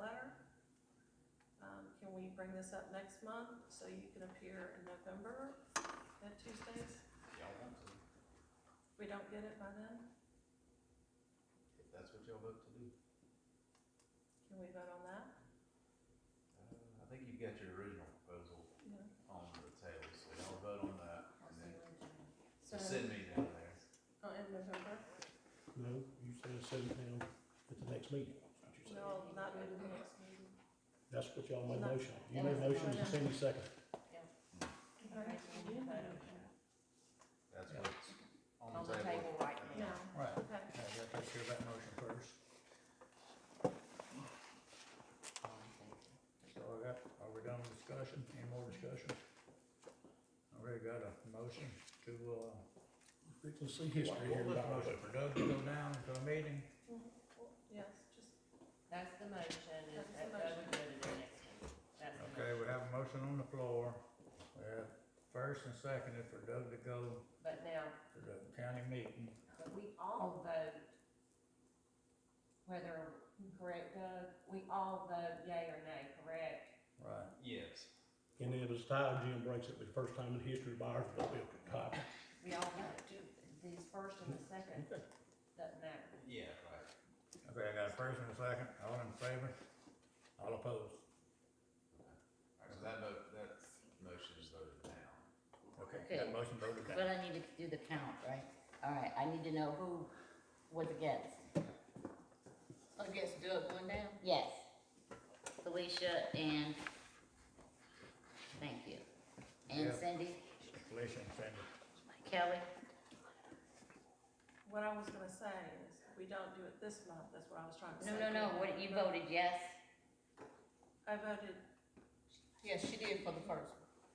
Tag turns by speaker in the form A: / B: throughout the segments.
A: you Um, bring this up next month, so you can appear in November at Tuesdays?
B: Y'all want to,
A: We don't get it by then?
B: if that's what y'all vote to do.
A: Can we vote on that?
B: Uh, I think you've got your original proposal
A: Yeah.
B: on the table, so y'all vote on that and then
A: So,
B: just send me down there.
A: oh, in November?
C: No, you said seven down at the next meeting, that's what you said.
A: No, not in the next meeting.
C: That's what y'all made
A: No.
C: motion. You made
D: Yeah.
C: motion and Cindy second.
B: That's
E: Yeah.
B: what's on
D: On
B: the table.
D: right
A: No,
D: now.
E: Right,
A: okay.
E: yeah, we gotta take care of that motion first. So I got, are we done with discussion? Any more discussion? I already got a motion to, uh,
C: We can see history here.
E: what was the motion for Doug to go down to a meeting?
A: Well, Yes, just,
D: That's the motion, is
A: That's
D: that
A: the
D: Doug would go to the next one. That's the
E: Okay,
D: motion.
E: we have a motion on the floor. We have first and seconded for Doug to go
D: But now,
E: to the county meeting.
D: but we all vote, whether, correct Doug, we all vote yea or nay, correct?
E: Right.
B: Yes.
C: And it was tied, Jim breaks it, for the first time in history by ours, but we could copy.
D: We all vote, these first and the second, doesn't matter.
B: Yeah, right.
E: Okay, I got a first and a second. All in favor? All opposed?
B: Alright, so that vote, that motion is voted down.
E: Okay, that
F: Okay.
E: motion voted down.
F: But I need to do the count, right? All right, I need to know who was against.
D: Against Doug going down?
F: Yes. Felicia and, thank you. And
E: Yeah.
F: Cindy,
E: Felicia and Cindy.
F: Kelly,
A: what I was gonna say is, we don't do it this month, that's what I was trying to say.
F: no, no, no, what, you voted yes?
A: I voted,
D: Yes, she did for the first.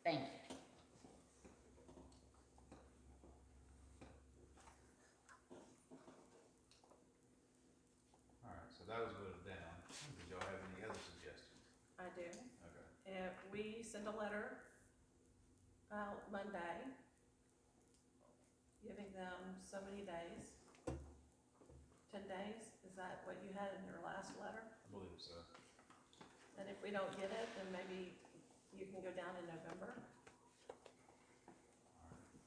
F: Thank you.
B: Alright, so that was voted down. Did y'all have any other suggestions?
A: I do.
B: Okay.
A: And we send a letter out Monday, giving them so many days. Ten days, is that what you had in your last letter?
B: I believe so.
A: And if we don't get it, then maybe you can go down in November.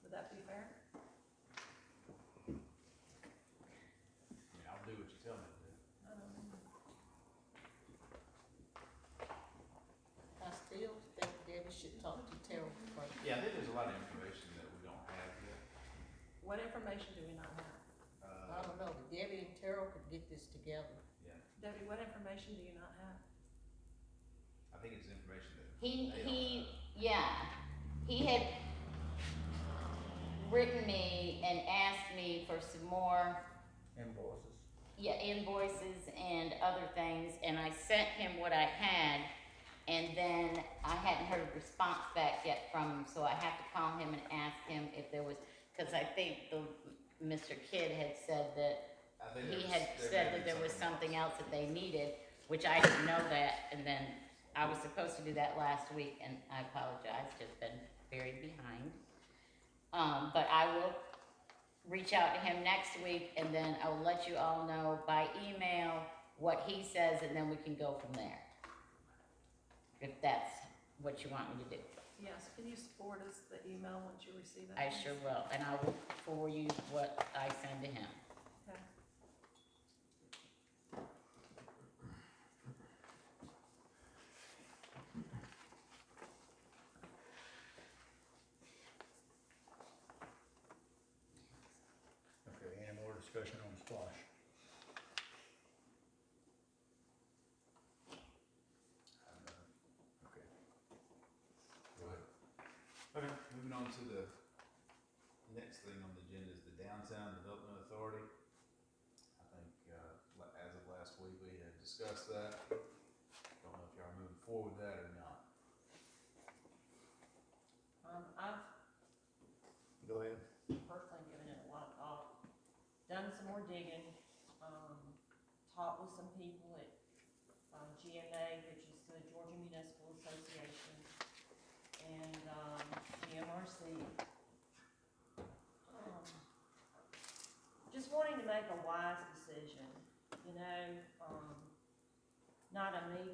A: Would that be fair?
B: I mean, I'll do what you tell me to do.
G: I still think Debbie should talk to Terrell first.
B: Yeah, I think there's a lot of information that we don't have yet.
A: What information do we not have?
G: I
B: Uh,
G: don't know, but Debbie and Terrell could get this together.
B: yeah,
A: Debbie, what information do you not have?
B: I think it's information that
F: He,
B: they don't have.
F: he, yeah, he had written me and asked me for some more
E: Invoices.
F: yeah, invoices and other things, and I sent him what I had, and then I hadn't heard a response back yet from him, so I have to call him and ask him if there was, because I think the, Mr. Kidd had said that,
B: I think there
F: he
B: was-
F: had
B: there may
F: said
B: be
F: that there was something else that they needed, which I didn't know that, and then I was supposed to do that last week, and I apologize, just been very behind. Um, but I will reach out to him next week and then I will let you all know by email what he says and then we can go from there. If that's what you want me to do.
A: Yes, can you forward us the email once you receive it?
F: I sure will, and I will forward you what I send to him.
A: Okay.
E: Okay, any more discussion on squash? Okay,
B: Right. Okay, moving on to the next thing on the agenda is the Downtown Development Authority. I think, uh, la- as of last week, we had discussed that. Don't know if y'all are moving forward with that or not.
G: Um, I've
E: go ahead.
G: personally given it a lot of thought, done some more digging, um, talked with some people at, um, GMA, which is the Georgia Municipal Association, and, um, GMRC. Um, Just wanting to make a wise decision, you know, um, not a me